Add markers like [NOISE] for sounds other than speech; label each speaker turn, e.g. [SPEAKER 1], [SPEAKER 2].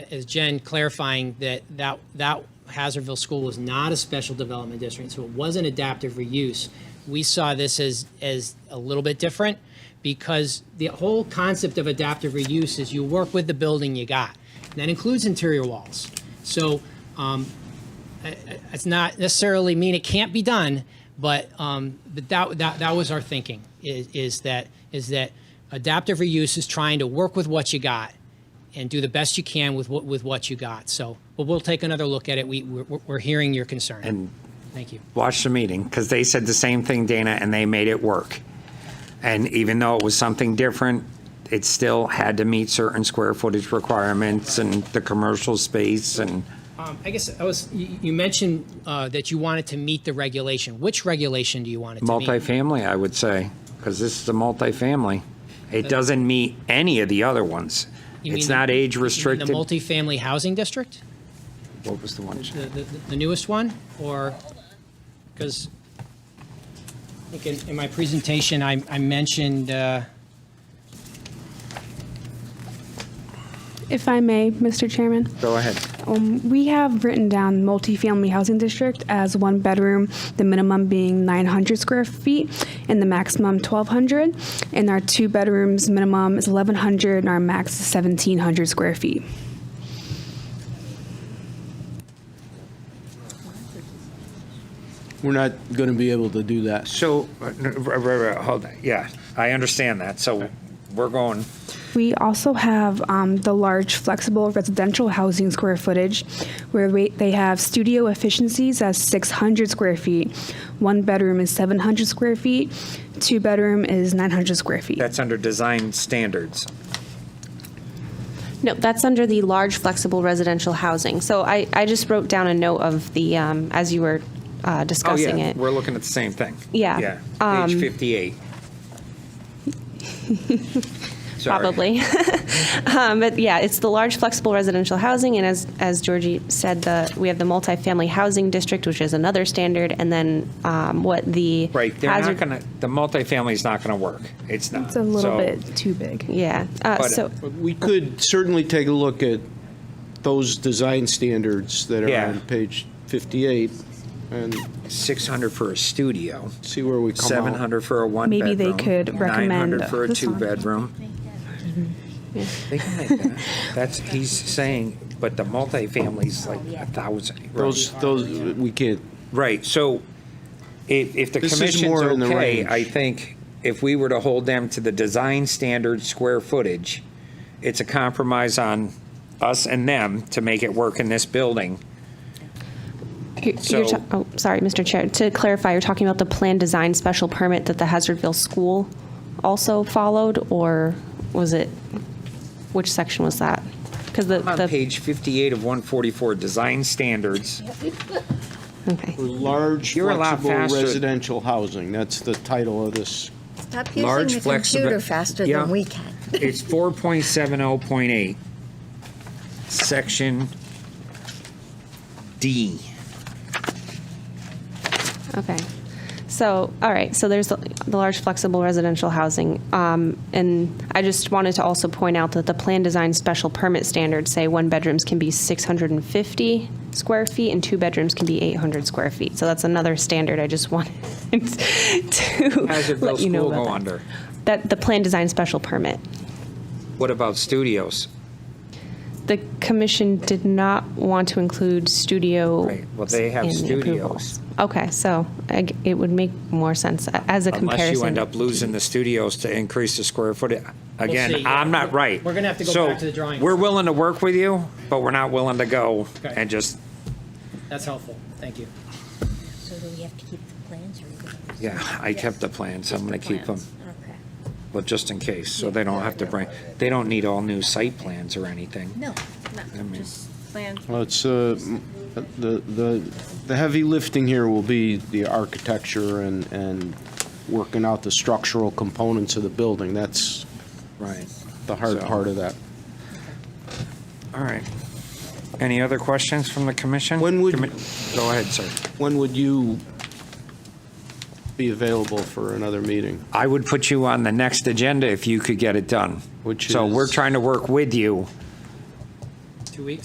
[SPEAKER 1] as Jen clarifying that that, that Hazardville School was not a special development district, so it wasn't adaptive reuse. We saw this as, as a little bit different because the whole concept of adaptive reuse is you work with the building you got. And That includes interior walls. So um, it's not necessarily mean it can't be done, but um, but that, that that was our thinking is, is that is that adaptive reuse is trying to work with what you got and do the best you can with what with what you got. So, but we'll take another look at it. We we're, we're hearing your concern.
[SPEAKER 2] And
[SPEAKER 1] Thank you.
[SPEAKER 2] watch the meeting because they said the same thing, Dana, and they made it work. And even though it was something different, it still had to meet certain square footage requirements and the commercial space and
[SPEAKER 1] Um, I guess I was you, you mentioned uh, that you wanted to meet the regulation. Which regulation do you want it to meet?
[SPEAKER 2] multifamily, I would say, because this is a multifamily. It doesn't meet any of the other ones.
[SPEAKER 1] You
[SPEAKER 2] It's
[SPEAKER 1] mean-
[SPEAKER 2] not age
[SPEAKER 1] You mean
[SPEAKER 2] restricted.
[SPEAKER 1] The multifamily housing district,
[SPEAKER 2] What was the one?
[SPEAKER 1] the, the, the newest one, or because I think in, in my presentation I, I mentioned. Uh,
[SPEAKER 3] If I may, Mr. Chairman,
[SPEAKER 2] Go ahead.
[SPEAKER 3] we have written down multifamily housing district as one bedroom, the minimum being 900 square feet and the maximum 1,200. And our two bedrooms minimum is 1,100 and our max is 1,700 square feet.
[SPEAKER 4] We're not going to be able to do that.
[SPEAKER 2] So, uh, r- r- r- hold on, yeah, I understand that. So we're going,
[SPEAKER 3] We also have um, the large flexible residential housing square footage, where we, they have studio efficiencies as 600 square feet. One bedroom is 700 square feet. Two bedroom is 900 square feet.
[SPEAKER 2] that's under design standards.
[SPEAKER 5] No, that's under the large flexible residential housing. So I, I just wrote down a note of the, um, as you were uh,
[SPEAKER 2] Oh,
[SPEAKER 5] discussing
[SPEAKER 2] yeah,
[SPEAKER 5] it.
[SPEAKER 2] we're looking at the same thing.
[SPEAKER 5] Yeah,
[SPEAKER 3] Um,
[SPEAKER 2] Yeah, page
[SPEAKER 3] [LAUGHS]
[SPEAKER 2] 58. Sorry.
[SPEAKER 5] Probably. [LAUGHS] Um, But yeah, it's the large flexible residential housing, and as, as Georgie said, the, we have the multifamily housing district, which is another standard, and then um, what the.
[SPEAKER 2] Right, they're not
[SPEAKER 5] hazard-
[SPEAKER 2] going to, the multifamily's not going to work. It's not.
[SPEAKER 3] It's a little
[SPEAKER 2] So,
[SPEAKER 3] bit too big.
[SPEAKER 5] Yeah, uh,
[SPEAKER 2] But-
[SPEAKER 5] so,
[SPEAKER 4] But we could certainly take a look at those design standards that are
[SPEAKER 2] Yeah.
[SPEAKER 4] on page 58 and
[SPEAKER 2] 600 for a studio,
[SPEAKER 4] see where we come out.
[SPEAKER 2] 700 for a one-bedroom.
[SPEAKER 3] Maybe they could recommend
[SPEAKER 2] 900 for a
[SPEAKER 3] this one. Mm-hmm.
[SPEAKER 2] two-bedroom. They can make that.
[SPEAKER 3] [LAUGHS]
[SPEAKER 2] That's, he's saying, but the multifamily's like a 1,000. right?
[SPEAKER 4] Those, those, we can't,
[SPEAKER 2] Right, so if, if the
[SPEAKER 4] This is
[SPEAKER 2] commission's
[SPEAKER 4] more in the
[SPEAKER 2] okay,
[SPEAKER 4] range.
[SPEAKER 2] I think if we were to hold them to the design standard square footage, it's a compromise on us and them to make it work in this building.
[SPEAKER 5] you're, you're
[SPEAKER 2] So-
[SPEAKER 5] ta- oh, sorry, Mr. Chair, to clarify, you're talking about the planned design special permit that the Hazardville School also followed, or was it, which section was that? Because the,
[SPEAKER 2] On
[SPEAKER 5] the,
[SPEAKER 2] page 58 of 144, design standards,
[SPEAKER 5] okay.
[SPEAKER 4] large
[SPEAKER 2] You're a lot
[SPEAKER 4] flexible
[SPEAKER 2] faster.
[SPEAKER 4] residential housing, that's the title of this.
[SPEAKER 6] Stop
[SPEAKER 2] Large
[SPEAKER 6] using the
[SPEAKER 2] flexi-
[SPEAKER 6] computer faster
[SPEAKER 2] Yeah.
[SPEAKER 6] than we can.
[SPEAKER 2] it's 4.70.8, section D.
[SPEAKER 5] Okay. So, all right, so there's the the large flexible residential housing. Um, And I just wanted to also point out that the plan design special permit standards say one bedrooms can be 650 square feet and two bedrooms can be 800 square feet. So that's another standard I just [LAUGHS] wanted to
[SPEAKER 2] Hazardville
[SPEAKER 5] let you know
[SPEAKER 2] School
[SPEAKER 5] about
[SPEAKER 2] go
[SPEAKER 5] that.
[SPEAKER 2] under.
[SPEAKER 5] That, the plan design special permit.
[SPEAKER 2] What about studios?
[SPEAKER 5] The commission did not want to include studio.
[SPEAKER 2] Right, well, they have
[SPEAKER 5] in the approvals.
[SPEAKER 2] studios.
[SPEAKER 5] Okay, so I g- it would make more sense a- as a comparison.
[SPEAKER 2] Unless you end up losing the studios to increase the square footage. Again,
[SPEAKER 1] see.
[SPEAKER 2] I'm not right.
[SPEAKER 1] We're gonna have to go
[SPEAKER 2] So,
[SPEAKER 1] back to the drawing
[SPEAKER 2] We're
[SPEAKER 1] board.
[SPEAKER 2] willing to work with you, but we're not willing to go
[SPEAKER 1] Okay.
[SPEAKER 2] and just,
[SPEAKER 1] That's helpful. Thank you.
[SPEAKER 6] So do we have to keep the plans or? we don't?
[SPEAKER 2] yeah, I kept the plans, I'm gonna keep them,
[SPEAKER 6] Plans, Okay.
[SPEAKER 2] but just in case, so they don't have to bring, they don't need all new site plans or anything.
[SPEAKER 6] No,
[SPEAKER 2] I
[SPEAKER 6] no,
[SPEAKER 2] mean-
[SPEAKER 6] just plans.
[SPEAKER 4] Well, it's, uh, m- the, the, the heavy lifting here will be the architecture and, and working out the structural components of the building. That's
[SPEAKER 2] Right,
[SPEAKER 4] the hard
[SPEAKER 2] So-
[SPEAKER 4] part of that.
[SPEAKER 2] all right. Any other questions from the commission?
[SPEAKER 4] When would-
[SPEAKER 2] Commi- Go ahead, sir.
[SPEAKER 4] When would you be available for another meeting?
[SPEAKER 2] I would put you on the next agenda if you could get it done.
[SPEAKER 4] Which
[SPEAKER 2] So we're
[SPEAKER 4] is-
[SPEAKER 2] trying to work with you
[SPEAKER 1] two weeks?